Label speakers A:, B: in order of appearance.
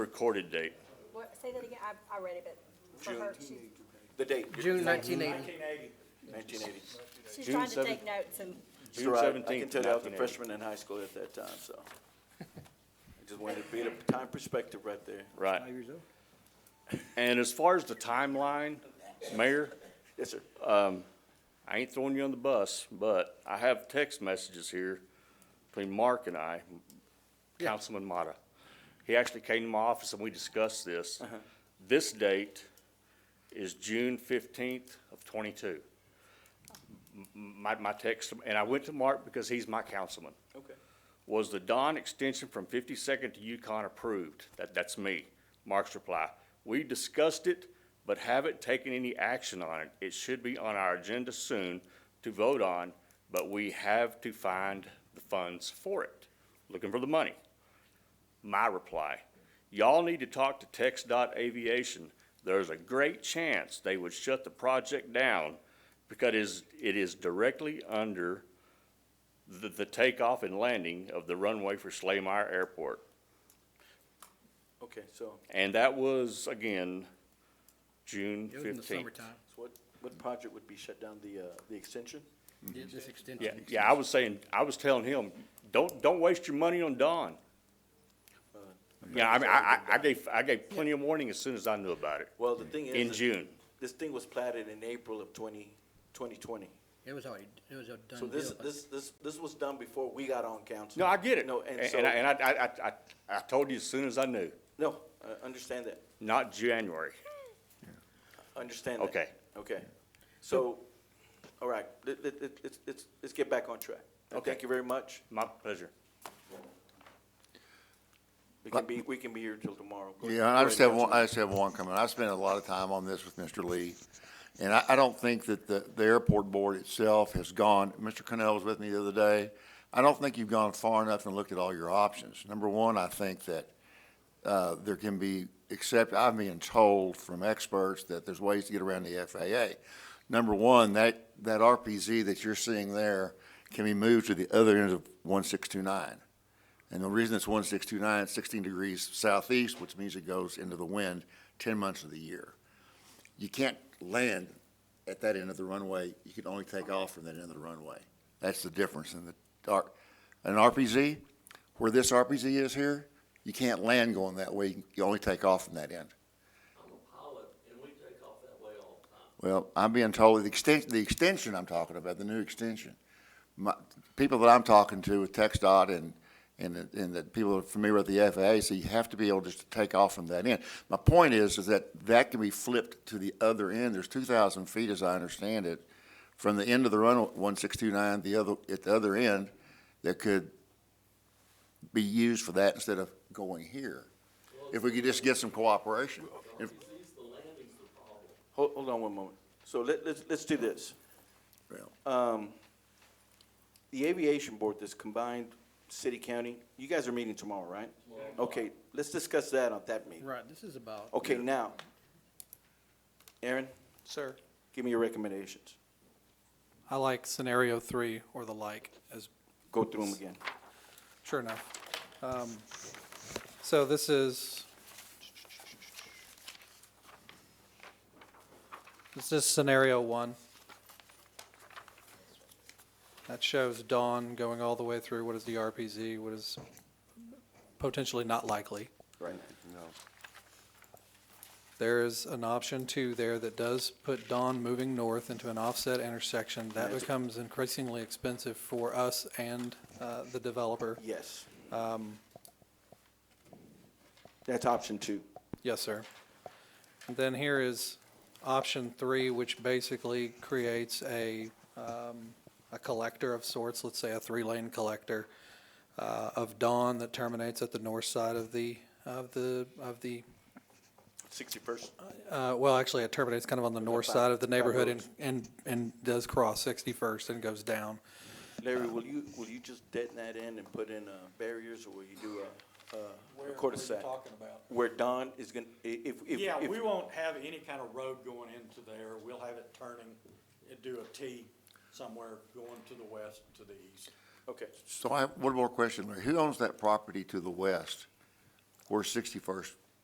A: recorded date.
B: What, say that again, I, I read it, but for her, she,
C: The date,
D: June nineteen eighty.
C: nineteen eighty.
B: she's
A: June
B: trying to
A: seventh.
B: take notes and,
A: June
C: I can
A: seventeenth,
C: tell you, I was
A: nineteen
C: a
A: eighty.
C: freshman in high school at that time, so. I just wanted to be at a time perspective right there.
A: Right. And as far as the timeline, Mayor,
C: Yes, sir.
A: I ain't throwing you on the bus, but I have text messages here between Mark and I, Councilman Mata. He actually came to my office and we discussed this. This date is June fifteenth of twenty-two. M- m- My, my text, and I went to Mark because he's my councilman.
C: Okay.
A: Was the Don extension from Fifty-second to Yukon approved? That, that's me. Mark's reply. We discussed it, but haven't taken any action on it. It should be on our agenda soon to vote on, but we have to find the funds for it. Looking for the money. My reply, y'all need to talk to Tex Dot Aviation. There's a great chance they would shut the project down because it is, it is directly under the, the takeoff and landing of the runway for Slaymire Airport.
C: Okay, so,
A: And that was, again, June
D: It was in the
A: fifteenth.
D: summertime,
C: so what, what project would be shut down, the, uh, the extension?
D: Yeah, this extension.
A: Mm-hmm. Yeah, yeah, I was saying, I was telling him, don't, don't waste your money on Dawn.
C: Uh,
A: Yeah, I mean, I, I, I gave, I gave plenty of warning as soon as I knew about it,
C: Well, the thing is.
A: in
C: that
A: June.
C: This thing was platted in April of twenty, twenty twenty.
D: It was already, it was a
C: So
D: done
C: this,
D: deal, but
C: this, this, this was done before we got on council.
A: No, I get it.
C: No, and so,
A: And I, and I, I, I- I, I told you as soon as I knew,
C: no, I understand that,
A: not January.
C: understand that.
A: Okay.
C: Okay. So, all right, let, let, let- let's, let's, let's get back on track. And
A: Okay.
C: Thank you very much.
A: My pleasure.
C: We can be, we can be here till tomorrow. Go
E: Yeah,
C: ahead,
E: I just have one, I
C: Councilman.
E: just have one comment. I spent a lot of time on this with Mr. Lee. And I, I don't think that the, the airport board itself has gone, Mr. Cannell was with me the other day. I don't think you've gone far enough and looked at all your options. Number one, I think that, uh, there can be, except I'm being told from experts that there's ways to get around the FAA. Number one, that, that RPZ that you're seeing there can be moved to the other end of one six two nine. And the reason it's 1629, 16 degrees southeast, which means it goes into the wind 10 months of the year. You can't land at that end of the runway. You can only take off from that end of the runway. That's the difference in the dark. An RPZ, where this RPZ is here, you can't land going that way. You only take off from that end. Well, I'm being told the extension, the extension I'm talking about, the new extension. My, people that I'm talking to with Tech Dot and, and, the- and the people that are familiar with the FAA, so you have to be able just to take off from that end. My point is, is that that can be flipped to the other end. There's two thousand feet, as I understand it, from the end of the runway, one six two nine, the other, at the other end, that could be used for that instead of going here. If we could just get some cooperation. If-
C: Hold, hold on one moment. So let, let's, let's do this.
E: well.
C: The aviation board, this combined city, county, you guys are meeting tomorrow, right? Okay, let's discuss that on that meeting.
D: Right, this is about.
C: Okay, now, Aaron,
F: Sir,
C: give me your recommendations.
F: I like scenario three or the like as,
C: Go through them again.
F: sure enough. Um, So this is. This is scenario one. That shows Dawn going all the way through what is the RPZ, what is potentially not likely.
C: Right.
F: There is an option two there that does put Dawn moving north into an offset intersection. That
C: That's-
F: becomes increasingly expensive for us and uh, the developer.
C: Yes. That's option two.
F: Yes, sir. And Then here is option three, which basically creates a, um, a collector of sorts, let's say a three-lane collector uh, of Dawn that terminates at the north side of the, of the, of the
C: Sixty-first.
F: Uh, well, actually, it terminates kind of on the north
C: back-
F: side of the
C: back
F: neighborhood and,
C: roads.
F: and, and does cross 61st and goes down.
C: Larry, will you, will you just deaden that in and put in, uh, barriers, or will you do a, a cul-de-sac?
G: about?
C: Where Don is gonna, i- if, if.
G: Yeah,
C: if-
G: we won't have any kind of road going into there. We'll have it turning, it do a T somewhere going to the west, to the east.
C: Okay,
E: So I have one more question, Larry. Who owns that property to the west where Sixty-first